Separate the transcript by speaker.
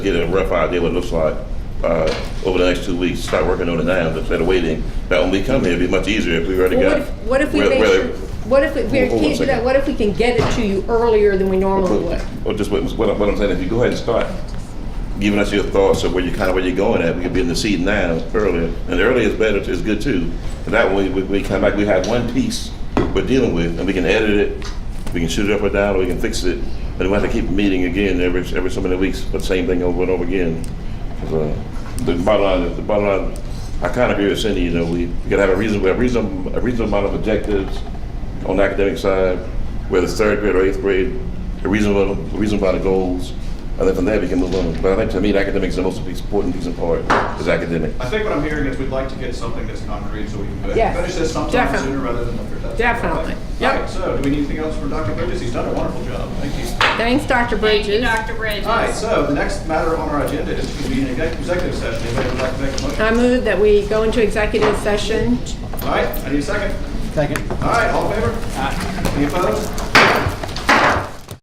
Speaker 1: get a rough idea what it looks like uh, over the next two weeks. Start working on it now instead of waiting. That when we come here, it'd be much easier if we already
Speaker 2: Well,
Speaker 1: got.
Speaker 2: What if, what if we
Speaker 1: where-
Speaker 2: make
Speaker 1: where-
Speaker 2: sure, what if, we- we
Speaker 1: Hold on a
Speaker 2: can't do
Speaker 1: second.
Speaker 2: that, what if we can get it to you earlier than we normally would?
Speaker 1: Or just what, what I'm- what I'm saying, if you go ahead and start giving us your thoughts of where you kind of where you're going at, we could be in the seat now earlier, and earlier is better, is good too. And that way, we, we come back, we have one piece we're dealing with, and we can edit it, we can shoot it up or down, or we can fix it. But we have to keep meeting again every every so many weeks, the same thing over and over again. 'Cause, uh, the bottom line, the bottom line, I kind of agree with Cindy. You know, we, we got to have a reasonable, a reasonable, a reasonable amount of objectives on the academic side, whether it's third grade or eighth grade, a reasonable, a reasonable amount of goals, and then from there we can move on. But I think to me, academics is the most important piece and part is academic.
Speaker 3: I think what I'm hearing is we'd like to get something that's concrete so we can go ahead
Speaker 2: Yes,
Speaker 3: and finish this sometime
Speaker 2: definitely.
Speaker 3: sooner rather than later. That's-
Speaker 2: Definitely.
Speaker 3: Okay.
Speaker 2: Yep.
Speaker 3: All right, so do we need anything else from Dr. Bridges? He's done a wonderful job. Thank you.
Speaker 2: Thanks, Dr.
Speaker 4: Thank you,
Speaker 2: Bridges.
Speaker 4: Dr. Bridges.
Speaker 3: All right, so the next matter on our agenda is to be an exec- executive session. Anybody would like to make a motion?
Speaker 2: I move that we go into executive session.
Speaker 3: All right, I need a second. Second. All right, all in favor? Any opposed?